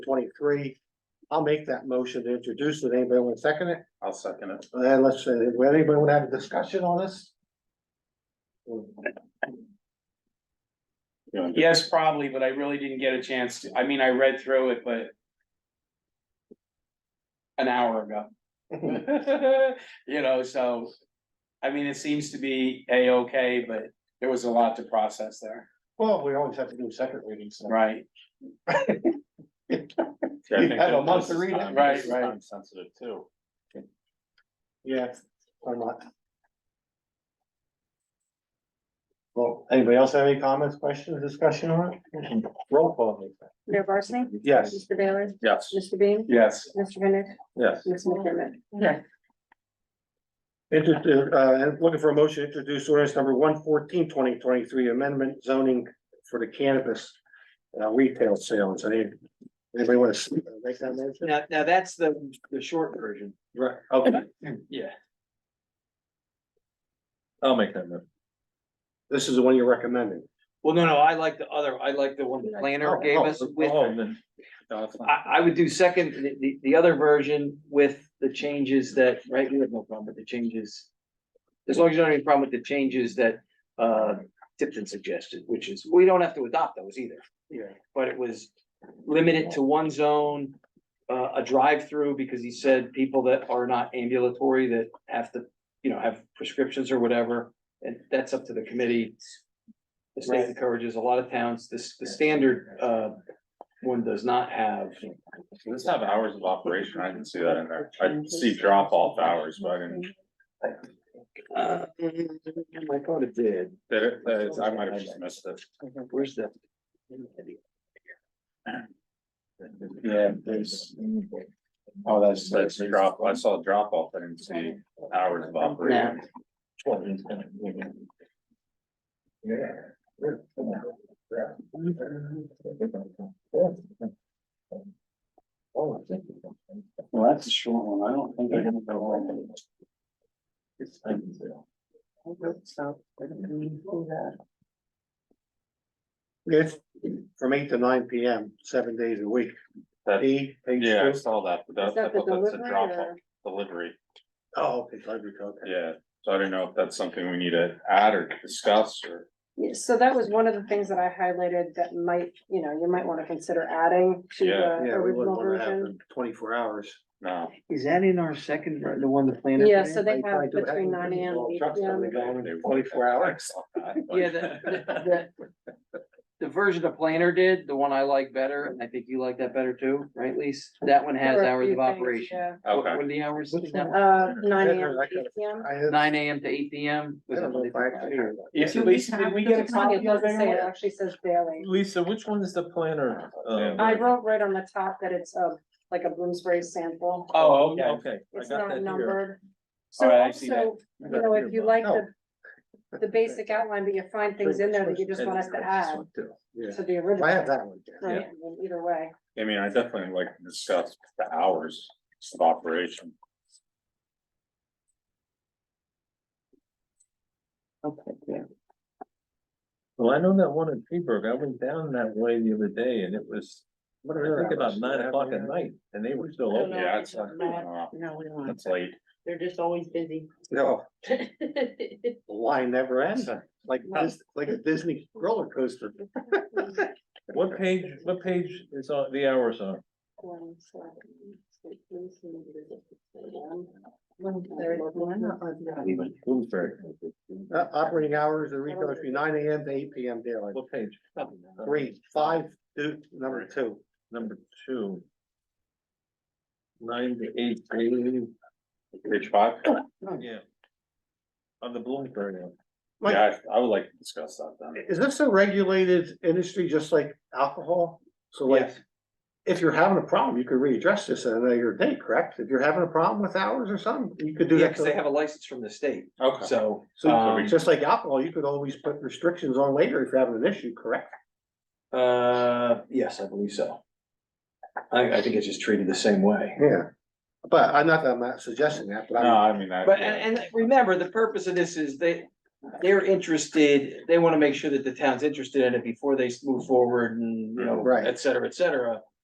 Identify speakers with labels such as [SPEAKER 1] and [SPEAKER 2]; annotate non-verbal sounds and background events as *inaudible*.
[SPEAKER 1] twenty-three. I'll make that motion to introduce it. Anybody want to second it?
[SPEAKER 2] I'll second it.
[SPEAKER 1] And then let's, uh, would anybody want to have a discussion on this?
[SPEAKER 2] You wanna do-
[SPEAKER 3] Yes, probably, but I really didn't get a chance to, I mean, I read through it, but. An
[SPEAKER 2] *laughs*
[SPEAKER 3] hour ago. You know, so, I mean, it seems to be A-okay, but there was a lot to process there,
[SPEAKER 1] Well, we always have to do second readings. so.
[SPEAKER 3] right?
[SPEAKER 2] Yeah, I
[SPEAKER 1] You
[SPEAKER 2] think
[SPEAKER 1] had a
[SPEAKER 2] that
[SPEAKER 1] month
[SPEAKER 2] this
[SPEAKER 1] to
[SPEAKER 2] is
[SPEAKER 1] read it.
[SPEAKER 2] time-
[SPEAKER 3] Right,
[SPEAKER 2] this is
[SPEAKER 3] right.
[SPEAKER 2] time Sensitive too.
[SPEAKER 1] Yeah, or not. Well, anybody else have any comments, questions, discussion on it? Roll call.
[SPEAKER 4] Mayor Barsney?
[SPEAKER 1] Yes.
[SPEAKER 4] Mr. Baylor?
[SPEAKER 2] Yes,
[SPEAKER 4] Mr. Bean?
[SPEAKER 3] Yes,
[SPEAKER 4] Mr. Bennett?
[SPEAKER 2] yes.
[SPEAKER 4] Ms. McDermott?
[SPEAKER 1] Introdu- uh, and looking for a motion to introduce ordinance number 114 2023 amendment zoning for the cannabis. Uh, retail sales, any, anybody want to make that motion?
[SPEAKER 5] Now, now that's the, the short version.
[SPEAKER 1] Right, okay,
[SPEAKER 3] yeah,
[SPEAKER 2] I'll make that move.
[SPEAKER 1] this is the one you're recommending.
[SPEAKER 5] Well, no, no, I like the other, I like the one the planner gave us with,
[SPEAKER 2] Oh, then- no, it's not.
[SPEAKER 5] I, I would do second, the, the, the other version with the changes that, right, we have no problem with the changes. As long as you don't have any problem with the changes that, uh, Tipton suggested, which is, we don't have to adopt those either.
[SPEAKER 1] Yeah.
[SPEAKER 5] But it was limited to one zone, uh, a drive-through, because he said people that are not ambulatory that have to, you know, have prescriptions or whatever, and that's up to the committee. The state encourages a lot of towns, this, the standard, uh, one does not have.
[SPEAKER 2] Does this have hours of operation? I didn't see that in there. I see drop off hours, but I didn't.
[SPEAKER 5] Uh, I thought it did.
[SPEAKER 2] That, it- that is- I might have just missed it.
[SPEAKER 5] Where's the?
[SPEAKER 2] Yeah, there's. Oh, that's, that's drop, I saw drop off, I didn't see hours of operation.
[SPEAKER 3] well, that's a short one, I don't think I can go on.
[SPEAKER 1] It's from eight to nine P M, seven days a week.
[SPEAKER 2] That-
[SPEAKER 1] E, page
[SPEAKER 2] Yeah, I
[SPEAKER 1] two.
[SPEAKER 2] saw that, but
[SPEAKER 4] Is
[SPEAKER 2] that, I
[SPEAKER 4] that the
[SPEAKER 2] thought that's a
[SPEAKER 4] delivery
[SPEAKER 2] drop off
[SPEAKER 4] or?
[SPEAKER 2] delivery,
[SPEAKER 1] Oh, okay, library code.
[SPEAKER 2] yeah. So I don't know if that's something we need to add or discuss or.
[SPEAKER 4] Yeah, So that was one of the things that I highlighted that might, you know, you might want to consider adding to
[SPEAKER 2] Yeah.
[SPEAKER 4] the
[SPEAKER 1] Yeah, we wouldn't
[SPEAKER 4] Uh, original
[SPEAKER 1] want to have
[SPEAKER 4] version.
[SPEAKER 1] them twenty-four hours.
[SPEAKER 2] No,
[SPEAKER 5] Is that in our second, ver- the one the planner?
[SPEAKER 4] Yeah,
[SPEAKER 5] did?
[SPEAKER 4] so they
[SPEAKER 1] Probably
[SPEAKER 4] have
[SPEAKER 1] do have
[SPEAKER 4] between
[SPEAKER 1] them
[SPEAKER 4] nine AM
[SPEAKER 1] involved.
[SPEAKER 4] and eight
[SPEAKER 1] Trucks
[SPEAKER 4] PM.
[SPEAKER 1] probably go in in Twenty-four hours.
[SPEAKER 5] Yeah, the, the, the- the version the planner did, the one I like better, and I think you like that better too, right, Lise? That one
[SPEAKER 4] There
[SPEAKER 5] has
[SPEAKER 4] were a
[SPEAKER 5] hours
[SPEAKER 4] few
[SPEAKER 5] of
[SPEAKER 4] things,
[SPEAKER 5] operation.
[SPEAKER 4] yeah.
[SPEAKER 5] What
[SPEAKER 2] Okay,
[SPEAKER 5] what are the hours?
[SPEAKER 1] Which one?
[SPEAKER 4] Uh, nine
[SPEAKER 1] Yeah,
[SPEAKER 4] AM,
[SPEAKER 1] I
[SPEAKER 4] to
[SPEAKER 1] got
[SPEAKER 4] eight PM.
[SPEAKER 1] I had-
[SPEAKER 5] Nine AM to eight PM?
[SPEAKER 1] I don't know if I actually heard that.
[SPEAKER 3] Yes, Lisa, did we get a copy
[SPEAKER 4] It
[SPEAKER 3] of that?
[SPEAKER 4] doesn't say, it actually says daily.
[SPEAKER 6] Lisa, which one is the planner?
[SPEAKER 2] Yeah.
[SPEAKER 6] uh,
[SPEAKER 4] I wrote right on the top that it's a, like a Bloomsbury sample.
[SPEAKER 3] Oh, okay,
[SPEAKER 6] Okay, I
[SPEAKER 4] It's
[SPEAKER 6] got
[SPEAKER 4] not
[SPEAKER 6] that here.
[SPEAKER 4] numbered. So
[SPEAKER 3] Alright, I see that.
[SPEAKER 4] also, you know, if you like the, the basic outline, but you find things in there that you just want us to add
[SPEAKER 1] Yeah.
[SPEAKER 4] to the
[SPEAKER 1] I have
[SPEAKER 4] original.
[SPEAKER 1] that one. yeah.
[SPEAKER 4] Right, I mean, either way,
[SPEAKER 2] I mean, I definitely like to discuss the hours of operation.
[SPEAKER 5] Okay, yeah.
[SPEAKER 6] Well, I know that one in Freeburg. I went down that way the other day and it was,
[SPEAKER 1] What
[SPEAKER 6] I
[SPEAKER 1] are their
[SPEAKER 6] think about
[SPEAKER 1] hours?
[SPEAKER 6] nine o'clock at night and they were still open.
[SPEAKER 2] Yeah, it's, uh,
[SPEAKER 7] No, we don't.
[SPEAKER 2] it's late.
[SPEAKER 7] They're just always busy.
[SPEAKER 1] No, the line never ends, like, this, like a Disney roller coaster.
[SPEAKER 6] What page, what page is on, the hours on? Bloomsbury.
[SPEAKER 1] Uh, operating hours and retail between nine AM to eight PM daily.
[SPEAKER 6] What page?
[SPEAKER 1] Three, five, two, number two.
[SPEAKER 6] Number two. Nine to eight, eight,
[SPEAKER 2] Page five,
[SPEAKER 1] Hmm.
[SPEAKER 6] yeah. On the Bloomsbury one.
[SPEAKER 1] Mike,
[SPEAKER 2] yeah, I I would like to discuss that then.
[SPEAKER 1] Is this a regulated industry just like alcohol? So like, if you're having a problem, you could readdress this at another day, correct? If you're having a problem with hours or something, you could do
[SPEAKER 5] Yeah,
[SPEAKER 1] that.
[SPEAKER 5] because they
[SPEAKER 1] to-
[SPEAKER 5] have a license from the state,
[SPEAKER 2] Okay.
[SPEAKER 5] so.
[SPEAKER 1] So
[SPEAKER 5] um,
[SPEAKER 1] just like alcohol, you could always put restrictions on later if you're having an issue, correct?
[SPEAKER 5] Uh, yes, I believe so. I, I think it's just treated the same way.
[SPEAKER 1] Yeah, but I'm not, I'm not suggesting that, but
[SPEAKER 2] No,
[SPEAKER 1] I'm,
[SPEAKER 2] I mean, that.
[SPEAKER 5] But, and, and remember, the purpose of this is they, they're interested, they want to make sure that the town's interested in it before they move forward and, you know,
[SPEAKER 1] Right.
[SPEAKER 5] et cetera, et cetera.